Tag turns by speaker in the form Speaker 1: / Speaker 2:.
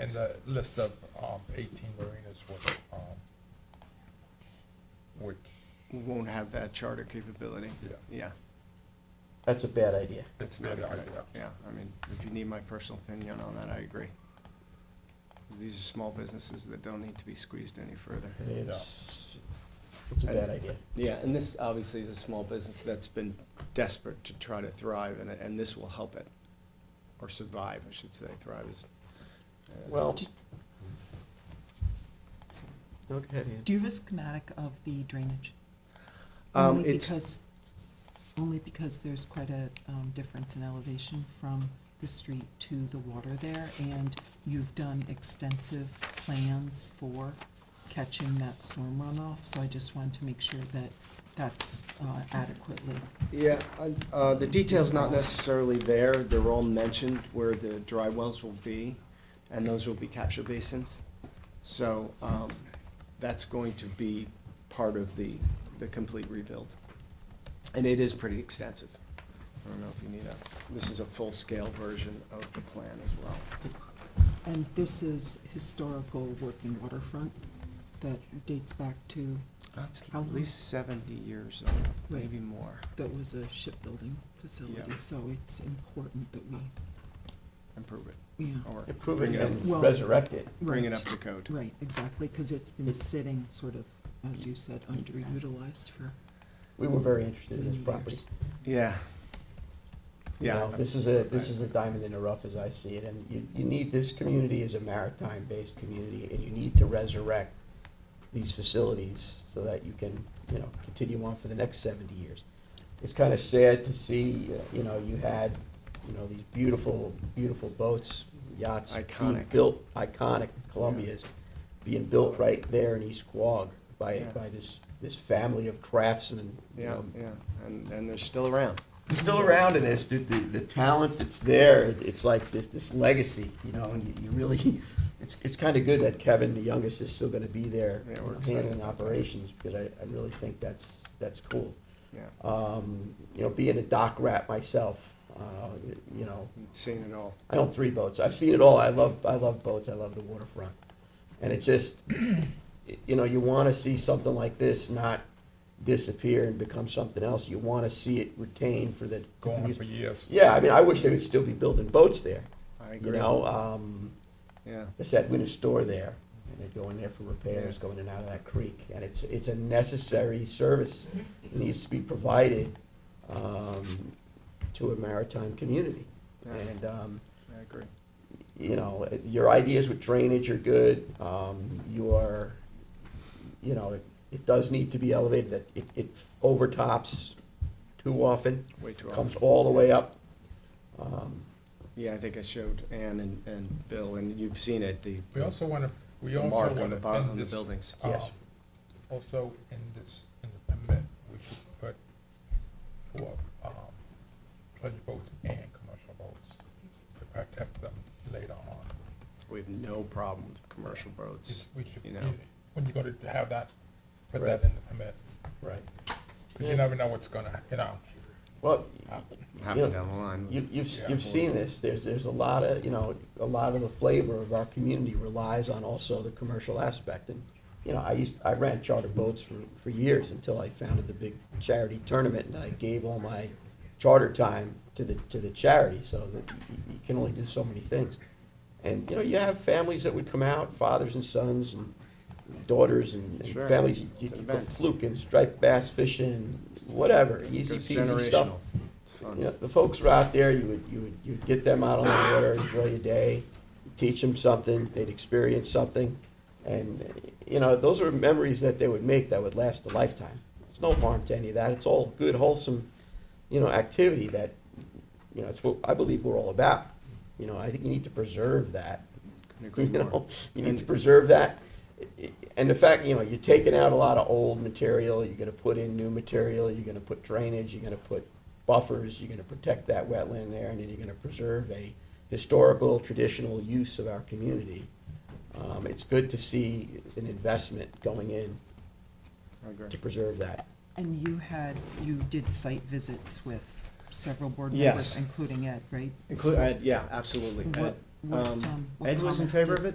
Speaker 1: And the list of um, 18 marinas with, um, which,
Speaker 2: We won't have that charter capability.
Speaker 1: Yeah.
Speaker 2: Yeah,
Speaker 3: That's a bad idea.
Speaker 1: it's not
Speaker 2: not a
Speaker 1: idea.
Speaker 2: yeah, I mean, if you need my personal opinion on that, I agree. These are small businesses that don't need to be squeezed any further.
Speaker 3: I think It's, it's a bad idea.
Speaker 2: Yeah, and this obviously is a small business that's been desperate to try to thrive, and, and this will help it, or survive, I should say, thrive is. uh,
Speaker 3: Well,
Speaker 4: Do you have a schematic of the drainage?
Speaker 2: Um,
Speaker 4: Only
Speaker 2: it's,
Speaker 4: because, only because there's quite a, um, difference in elevation from the street to the water there, and you've done extensive plans for catching that storm runoff, so I just wanted to make sure that that's uh, adequately.
Speaker 2: yeah, I- uh, the detail's not necessarily there, they're all mentioned where the dry wells will be, and those will be capture basins. So, um, that's going to be part of the, the complete rebuild. And it is pretty extensive. I don't know if you need a, this is a full-scale version of the plan as well.
Speaker 4: And this is historical working waterfront that dates back to,
Speaker 2: That's
Speaker 4: How
Speaker 2: at
Speaker 4: long?
Speaker 2: least seventy years old,
Speaker 4: Right.
Speaker 2: maybe more.
Speaker 4: that was a shipbuilding facility,
Speaker 2: Yeah.
Speaker 4: so it's important that we,
Speaker 2: Improve it,
Speaker 4: yeah.
Speaker 2: or
Speaker 3: improve
Speaker 2: bring
Speaker 3: it
Speaker 2: it up,
Speaker 3: and
Speaker 4: Well-
Speaker 3: resurrect it.
Speaker 2: bring it
Speaker 4: right.
Speaker 2: up to code.
Speaker 4: Right, exactly, because it's been
Speaker 3: It's-
Speaker 4: sitting sort of, as you said, underutilized for,
Speaker 3: We were very interested in this
Speaker 4: Many
Speaker 3: property.
Speaker 4: years.
Speaker 2: Yeah.
Speaker 3: You
Speaker 2: Yeah.
Speaker 3: know, This is a, this is a diamond in the rough as I see it, and you, you need, this community is a maritime-based community, and you need to resurrect these facilities so that you can, you know, continue on for the next seventy years. It's kind of sad to see, uh, you know, you had, you know, these beautiful, beautiful boats, yachts. being
Speaker 2: Iconic.
Speaker 3: Built, iconic Columbia's, being built right there in East Quogue by,
Speaker 2: Yeah.
Speaker 3: by this, this family of craftsmen, you
Speaker 2: Yeah,
Speaker 3: know,
Speaker 2: yeah, and, and they're still around.
Speaker 3: It's still around in this, the, the, the talent that's there, it- it's like this, this legacy, you know, and you, you really, it's, it's kinda good that Kevin, the youngest, is still gonna be there
Speaker 2: Yeah, we're excited
Speaker 3: handling
Speaker 2: about that.
Speaker 3: operations, because I, I really think that's, that's cool.
Speaker 2: Yeah,
Speaker 3: Um, you know, being a dock rat myself, uh, you know,
Speaker 2: seen it all.
Speaker 3: I own three boats. I've seen it all. I love, I love boats. I love the waterfront. And it just, you know, you want to see something like this not disappear and become something else. You want to see it retained for the.
Speaker 1: Going on for years.
Speaker 3: Yeah, I mean, I wish they would still be building boats there.
Speaker 2: I
Speaker 3: You
Speaker 2: agree.
Speaker 3: know, um,
Speaker 2: Yeah,
Speaker 3: they said we're gonna store there, and they go in there for repairs,
Speaker 2: Yeah.
Speaker 3: go in and out of that creek, and it's, it's a necessary service.
Speaker 2: Mm-hmm.
Speaker 3: It needs to be provided, um, to a maritime community.
Speaker 2: Yeah.
Speaker 3: And, um,
Speaker 2: I agree.
Speaker 3: you know, your ideas with drainage are good, um, your, you know, it, it does need to be elevated, that it, it overtops too often,
Speaker 2: Way too
Speaker 3: comes
Speaker 2: often.
Speaker 3: all the way up. Um,
Speaker 2: Yeah, I think I showed Ann and, and Bill, and you've seen it, the
Speaker 1: We also want to, we
Speaker 2: the
Speaker 1: also
Speaker 2: mark
Speaker 1: want to.
Speaker 2: on the bottom, on the buildings.
Speaker 1: uh,
Speaker 3: Yes.
Speaker 1: Also, in this, in the permit, we should put for um, pleasure boats and commercial boats to protect them later on.
Speaker 2: We have no problem with commercial boats.
Speaker 1: We should,
Speaker 2: You know.
Speaker 1: when you go to have that, put
Speaker 3: Right.
Speaker 1: that in the permit,
Speaker 3: Right.
Speaker 1: because you never know what's gonna, you know,
Speaker 3: Well,
Speaker 1: happen.
Speaker 2: Happen down the line.
Speaker 3: You, you've,
Speaker 1: Yeah.
Speaker 3: you've seen this, there's, there's a lot of, you know, a lot of the flavor of our community relies on also the commercial aspect, and, you know, I used, I ran charter boats for, for years until I founded the big charity tournament, and I gave all my charter time to the, to the charity, so that you, you can only do so many things. And, you know, you have families that would come out, fathers and sons, and daughters, and and
Speaker 2: Sure.
Speaker 3: families, you, you
Speaker 2: It's an
Speaker 3: go
Speaker 2: event.
Speaker 3: fluke and striped bass fishing, whatever, easy
Speaker 2: Goes
Speaker 3: peasy stuff.
Speaker 2: generational. It's fun.
Speaker 3: You know, the folks were out there, you would, you would, you'd get them out on the water, enjoy your day, teach them something, they'd experience something. And, uh, you know, those are memories that they would make that would last a lifetime. There's no harm to any of that. It's all good wholesome, you know, activity that, you know, it's what I believe we're all about. You know, I think you need to preserve that.
Speaker 2: Couldn't agree
Speaker 3: You
Speaker 2: more.
Speaker 3: know, you need to
Speaker 2: And-
Speaker 3: preserve that. And the fact, you know, you're taking out a lot of old material, you're gonna put in new material, you're gonna put drainage, you're gonna put buffers, you're gonna protect that wetland there, and then you're gonna preserve a historical, traditional use of our community. Um, it's good to see an investment going in
Speaker 2: I agree.
Speaker 3: to preserve that.
Speaker 4: And you had, you did site visits with several board
Speaker 2: Yes.
Speaker 4: members, including Ed, right?
Speaker 2: Include, uh, yeah, absolutely.
Speaker 4: What, what,
Speaker 2: Um,
Speaker 4: um, what
Speaker 2: Ed was in
Speaker 4: comments
Speaker 2: favor
Speaker 4: did-
Speaker 2: of it?